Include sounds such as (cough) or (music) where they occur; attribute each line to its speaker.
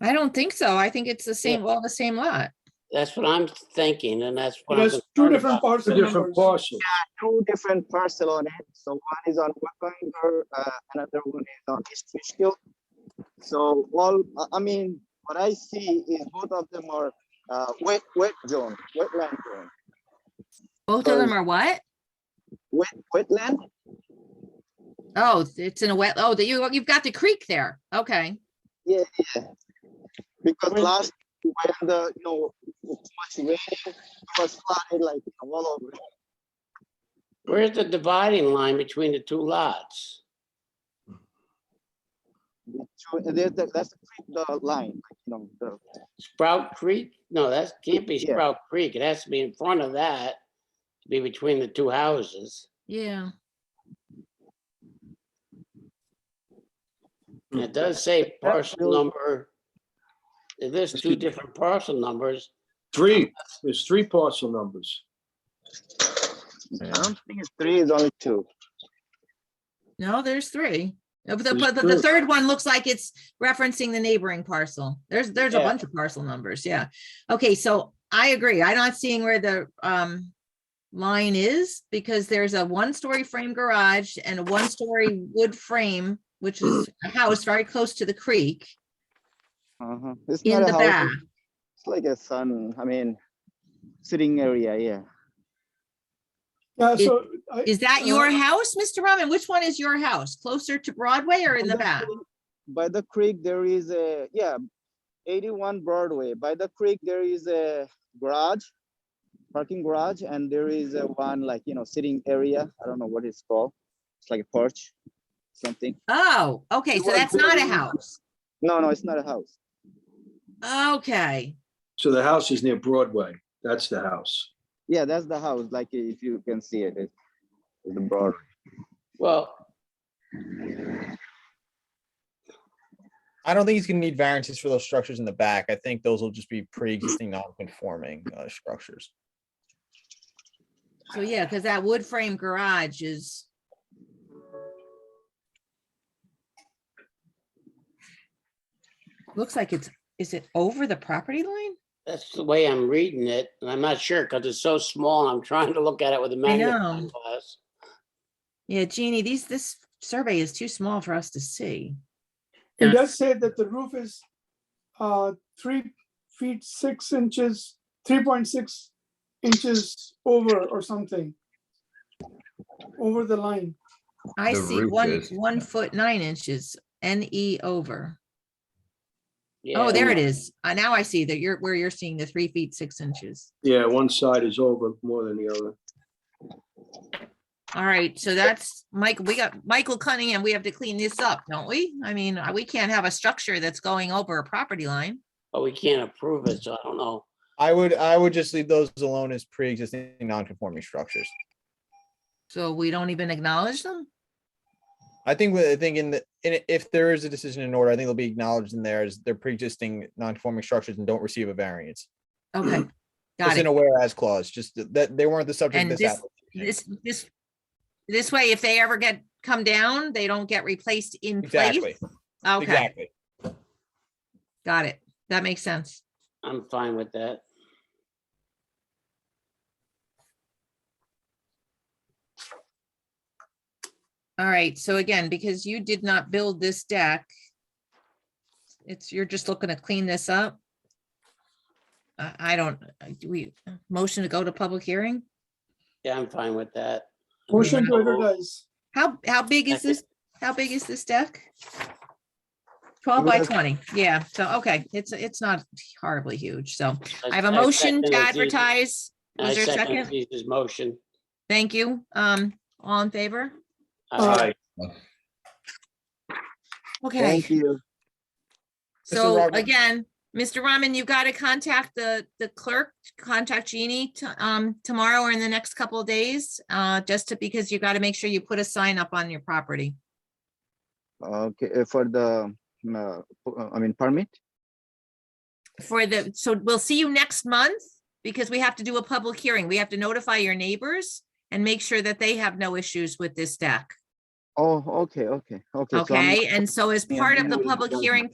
Speaker 1: I don't think so. I think it's the same, all the same lot.
Speaker 2: That's what I'm thinking, and that's what I'm.
Speaker 3: There's two
Speaker 2: concerned
Speaker 3: different
Speaker 2: about.
Speaker 3: parcel
Speaker 4: different
Speaker 3: numbers.
Speaker 4: parcel.
Speaker 5: two different parcel on it. So one is on Wakanger, uh, another one is on East Fishkill. So all, I- I mean, what I see is both of them are, uh, wet, wet zone, wetland zone,
Speaker 1: Both of them are what?
Speaker 5: wet, wetland.
Speaker 1: Oh, it's in a wet, oh, that you, you've got the creek there. Okay.
Speaker 5: Because last, when the, you know, too much rain, it was flooded like all over.
Speaker 2: Where's the dividing line between the two lots?
Speaker 5: So there's, the- that's the creek, the line, you know, the,
Speaker 2: Sprout Creek? No, that can't be
Speaker 5: Yeah.
Speaker 2: Sprout Creek. It has to be in front of that, to be between the two houses.
Speaker 1: Yeah.
Speaker 2: And It does say
Speaker 5: That
Speaker 2: parcel
Speaker 5: really-
Speaker 2: number. It lists two different parcel numbers.
Speaker 4: Three, there's three parcel numbers.
Speaker 5: I don't think it's three, it's only two.
Speaker 1: No, there's three. Uh, But the,
Speaker 4: There's
Speaker 1: but the- the
Speaker 4: two.
Speaker 1: third one looks like it's referencing the neighboring parcel. There's, there's a
Speaker 2: Yeah.
Speaker 1: bunch of parcel numbers. Yeah. Okay, so I agree. I'm not seeing where the, um, line is because there's a one-story frame garage and a one-story wood frame, which is a house very close to the creek
Speaker 5: Uh-huh. It's
Speaker 1: in
Speaker 5: not a
Speaker 1: the
Speaker 5: house,
Speaker 1: back.
Speaker 5: It's like a sun, I mean, sitting area, yeah.
Speaker 3: Yeah, so. I-
Speaker 1: Is that your
Speaker 3: Uh,
Speaker 1: house, Mr. Rahman? Which one is your house? Closer to Broadway or in the back?
Speaker 5: By the creek, there is a, yeah, eighty-one Broadway. By the creek, there is a garage, parking garage, and there is a one like, you know, sitting area. I don't know what it's called. It's like a porch, something.
Speaker 1: Oh, okay, so
Speaker 5: Well,
Speaker 1: that's not a
Speaker 5: there-
Speaker 1: house.
Speaker 5: No, no, it's not a house.
Speaker 1: Okay,
Speaker 4: So the house is near Broadway. That's the house.
Speaker 5: Yeah, that's the house, like if you can see it, it's it's the Broadway.
Speaker 2: Well,
Speaker 6: I don't think he's gonna need variances for those structures in the back. I think those will just be pre-existing non-conforming uh, structures.
Speaker 1: so yeah, because that wood frame garage is, looks like it's, is it over the property line?
Speaker 2: that's the way I'm reading it, and I'm not sure because it's so small. I'm trying to look at it with a magnifying
Speaker 1: know. Oh,
Speaker 2: glass.
Speaker 1: Yeah, Jeannie, these, this survey is too small for us to see.
Speaker 3: It does say that the roof is, uh, three feet, six inches, three point six inches over or something. Over the line.
Speaker 1: I
Speaker 7: The
Speaker 1: see
Speaker 7: roof
Speaker 1: one,
Speaker 7: is-
Speaker 1: one foot nine inches, NE over.
Speaker 2: Yeah,
Speaker 1: Oh, there it is. Uh, Now I see that you're, where you're seeing the three feet, six inches.
Speaker 4: Yeah, one side is over more than the other.
Speaker 1: All right, so that's Mike, we got Michael Cunningham. We have to clean this up, don't we? I mean, uh, we can't have a structure that's going over a property line.
Speaker 2: But we can't approve it, so I don't know.
Speaker 6: I would, I would just leave those alone as pre-existing non-conforming structures.
Speaker 1: So we don't even acknowledge them?
Speaker 6: I think, with- I think in the, in, it- if there is a decision in order, I think it'll be acknowledged in there as they're pre-existing non-conforming structures and don't receive a variance.
Speaker 1: (clears throat) Okay, got
Speaker 6: It's
Speaker 1: it.
Speaker 6: in a whereas clause, just th- that they weren't the subject of
Speaker 1: And
Speaker 6: this.
Speaker 1: this-
Speaker 6: application.
Speaker 1: This, this, this way, if they ever get, come down, they don't get replaced in place?
Speaker 6: Exactly,
Speaker 1: Okay,
Speaker 6: exactly.
Speaker 1: got it. That makes sense.
Speaker 2: I'm fine with that.
Speaker 1: All right, so again, because you did not build this deck, it's, you're just looking to clean this up? I, I don't, uh, do we, motion to go to public hearing?
Speaker 2: Yeah, I'm fine with that. I mean,
Speaker 3: Motion to
Speaker 2: oh,
Speaker 3: advertise.
Speaker 1: How, how big is
Speaker 2: Second.
Speaker 1: this? How big is this deck? Twelve by twenty, yeah, so, okay, it's, it's not horribly huge, so I have a motion to
Speaker 2: second Aziz's-
Speaker 1: advertise.
Speaker 2: I
Speaker 1: Was there a
Speaker 2: second
Speaker 1: second?
Speaker 2: Aziz's motion.
Speaker 1: Thank you, um, all in favor?
Speaker 3: Aye.
Speaker 1: Okay,
Speaker 5: Thank you.
Speaker 1: so
Speaker 6: Rodman.
Speaker 1: again, Mr. Rahman, you gotta contact the, the clerk, contact Jeannie, to- um, tomorrow or in the next couple of days. Uh, just to, because you gotta make sure you put a sign up on your property.
Speaker 5: Okay, uh, for the, um, uh, p- uh, I mean, permit?
Speaker 1: for the, so we'll see you next month because we have to do a public hearing. We have to notify your neighbors and make sure that they have no issues with this deck.
Speaker 5: Oh, okay, okay, okay. so I'm-
Speaker 1: Okay, and so as
Speaker 5: Yeah,
Speaker 1: part of
Speaker 5: yeah,
Speaker 1: the
Speaker 5: we'll
Speaker 1: public
Speaker 5: go.
Speaker 1: hearing